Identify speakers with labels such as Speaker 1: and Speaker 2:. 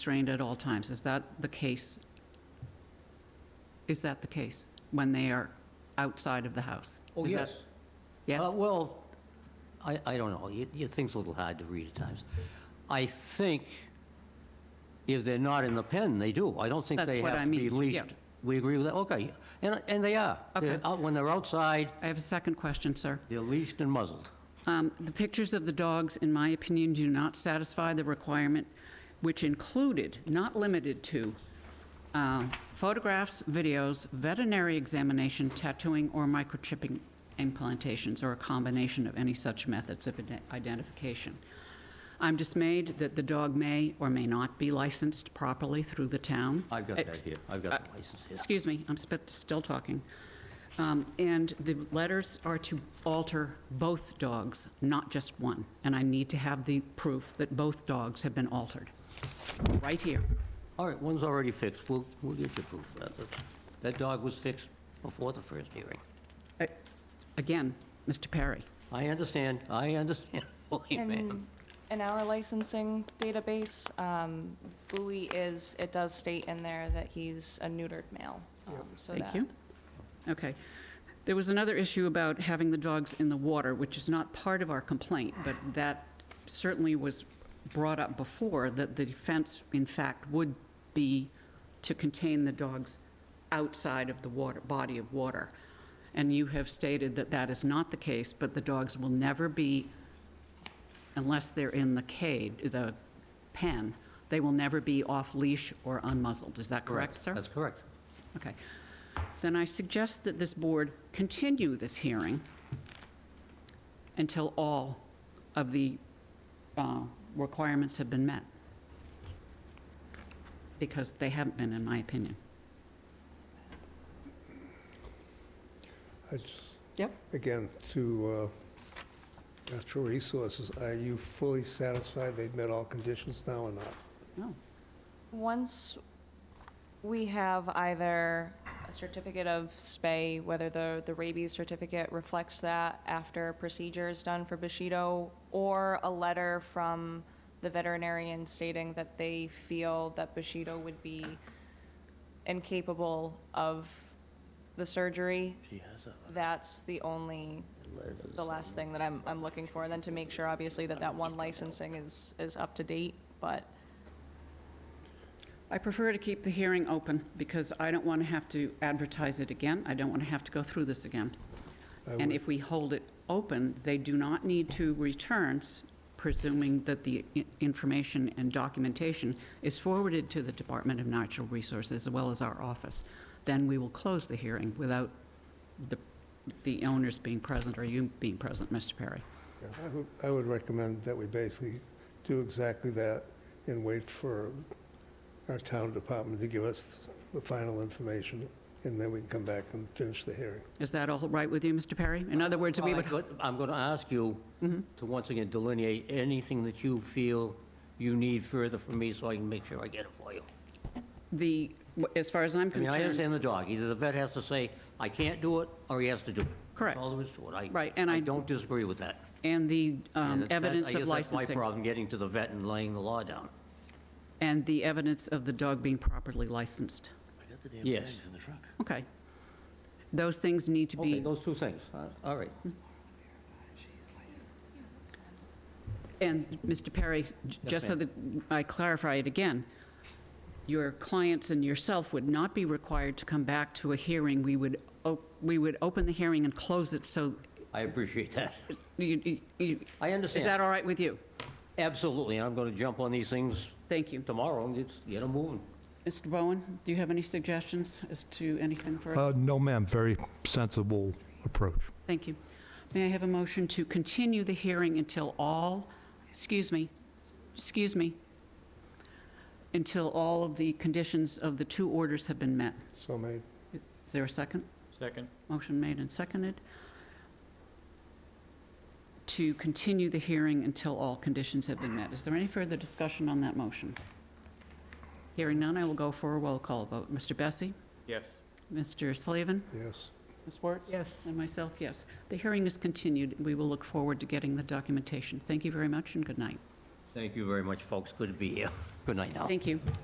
Speaker 1: restrained at all times. Is that the case? Is that the case when they are outside of the house?
Speaker 2: Oh,
Speaker 1: Is that-
Speaker 2: yes.
Speaker 1: Yes?
Speaker 2: Uh, Well, I, I don't know. It, it seems a little hard to read at times. I think if they're not in the pen, they do. I don't think
Speaker 1: That's
Speaker 2: they
Speaker 1: what
Speaker 2: have
Speaker 1: I
Speaker 2: to be
Speaker 1: mean,
Speaker 2: leashed.
Speaker 1: yeah.
Speaker 2: We agree with that? Okay. And, and they are. They're
Speaker 1: Okay.
Speaker 2: out- When they're outside,
Speaker 1: I have a second question, sir.
Speaker 2: they're leashed and muzzled.
Speaker 1: Um, The pictures of the dogs, in my opinion, do not satisfy the requirement, which included, not limited to, uh, photographs, videos, veterinary examination, tattooing, or microchipping implantations, or a combination of any such methods of ide- identification. I'm dismayed that the dog may or may not be licensed properly through the town.
Speaker 2: I've got
Speaker 1: Ex-
Speaker 2: that here. I've got the license here.
Speaker 1: Excuse me, I'm sp- still talking. Um, And the letters are to alter both dogs, not just one. And I need to have the proof that both dogs have been altered, right here.
Speaker 2: All right, one's already fixed. We'll, we'll get you proof of that. That's- That dog was fixed before the first hearing.
Speaker 1: Uh, Again, Mr. Perry,
Speaker 2: I understand. I understand. fully, ma'am.
Speaker 3: And in our licensing database, um, Bowie is, it does state in there that he's a neutered male. um, so
Speaker 1: thank
Speaker 3: that-
Speaker 1: you. Okay. There was another issue about having the dogs in the water, which is not part of our complaint, but that certainly was brought up before, that the fence, in fact, would be to contain the dogs outside of the water, body of water. And you have stated that that is not the case, but the dogs will never be, unless they're in the cage, the pen, they will never be off-leash or unmuzzled. Is that correct, sir?
Speaker 2: That's correct.
Speaker 1: Okay. Then I suggest that this board continue this hearing until all of the uh, requirements have been met. Because they haven't been, in my opinion.
Speaker 4: It's,
Speaker 1: Yep.
Speaker 4: again, to uh, Natural Resources, are you fully satisfied they've met all conditions now or not?
Speaker 1: No.
Speaker 3: Once we have either a certificate of spay, whether the, the rabies certificate reflects that after procedure is done for Bushido, or a letter from the veterinarian stating that they feel that Bushido would be incapable of the surgery,
Speaker 2: She has a
Speaker 3: that's the only,
Speaker 2: letter. to
Speaker 3: the
Speaker 2: side.
Speaker 3: last thing that I'm, I'm looking for, and then to make sure, obviously, that that one licensing is, is up to date, but
Speaker 1: I prefer to keep the hearing open because I don't want to have to advertise it again. I don't want to have to go through this again.
Speaker 4: I
Speaker 1: And
Speaker 4: would-
Speaker 1: if we hold it open, they do not need to return, s- presuming that the i- information and documentation is forwarded to the Department of Natural Resources as well as our office. Then we will close the hearing without the, the owners being present or you being present, Mr. Perry.
Speaker 4: yeah, I would- I would recommend that we basically do exactly that and wait for our town department to give us the final information, and then we can come back and finish the hearing.
Speaker 1: Is that all right with you, Mr. Perry? In other words, we
Speaker 2: Well,
Speaker 1: would,
Speaker 2: I got- I'm going to ask you
Speaker 1: Mm-hmm.
Speaker 2: to once again delineate anything that you feel you need further from me so I can make sure I get it for you.
Speaker 1: the, as far as I'm
Speaker 2: I mean, I
Speaker 1: concerned,
Speaker 2: understand the dog. Either the vet has to say, I can't do it, or he has to do it. That's
Speaker 1: Correct.
Speaker 2: all there is to it. I-
Speaker 1: Right, and I-
Speaker 2: don't disagree with that.
Speaker 1: and the um,
Speaker 2: And that-
Speaker 1: evidence of
Speaker 2: I guess that's my
Speaker 1: licensing,
Speaker 2: problem, getting to the vet and laying the law down.
Speaker 1: and the evidence of the dog being properly licensed.
Speaker 2: Yes.
Speaker 1: Okay. Those things need to
Speaker 2: Okay,
Speaker 1: be, Mm-hmm.
Speaker 2: those two things. Uh, All right.
Speaker 1: and Mr. Perry, j- just so that I clarify it again, your clients and yourself would not be required to come back to a hearing. We would, op- we would open the hearing and close it, so
Speaker 2: I appreciate that.
Speaker 1: you, you- you-
Speaker 2: I
Speaker 1: is that
Speaker 2: understand.
Speaker 1: all right with you?
Speaker 2: Absolutely. And I'm going to jump on these things
Speaker 1: Thank you.
Speaker 2: tomorrow and just get them moving.
Speaker 1: Mr. Bowen, do you have any suggestions as to anything further?
Speaker 5: Uh, No, ma'am, very sensible approach.
Speaker 1: Thank you. May I have a motion to continue the hearing until all, excuse me, excuse me, until all of the conditions of the two orders have been met?
Speaker 4: So made.
Speaker 1: Is there a second?
Speaker 6: Second.
Speaker 1: Motion made and seconded to continue the hearing until all conditions have been met. Is there any further discussion on that motion? Hearing none, I will go for a roll call vote. Mr. Bessie?
Speaker 6: Yes.
Speaker 1: Mr. Slavin?
Speaker 4: yes.
Speaker 1: Ms. Wertz? Yes. And myself, yes. The hearing is continued. We will look forward to getting the documentation. Thank you very much and good night.
Speaker 2: Thank you very much, folks. Good to be here. Good night now.
Speaker 1: Thank you.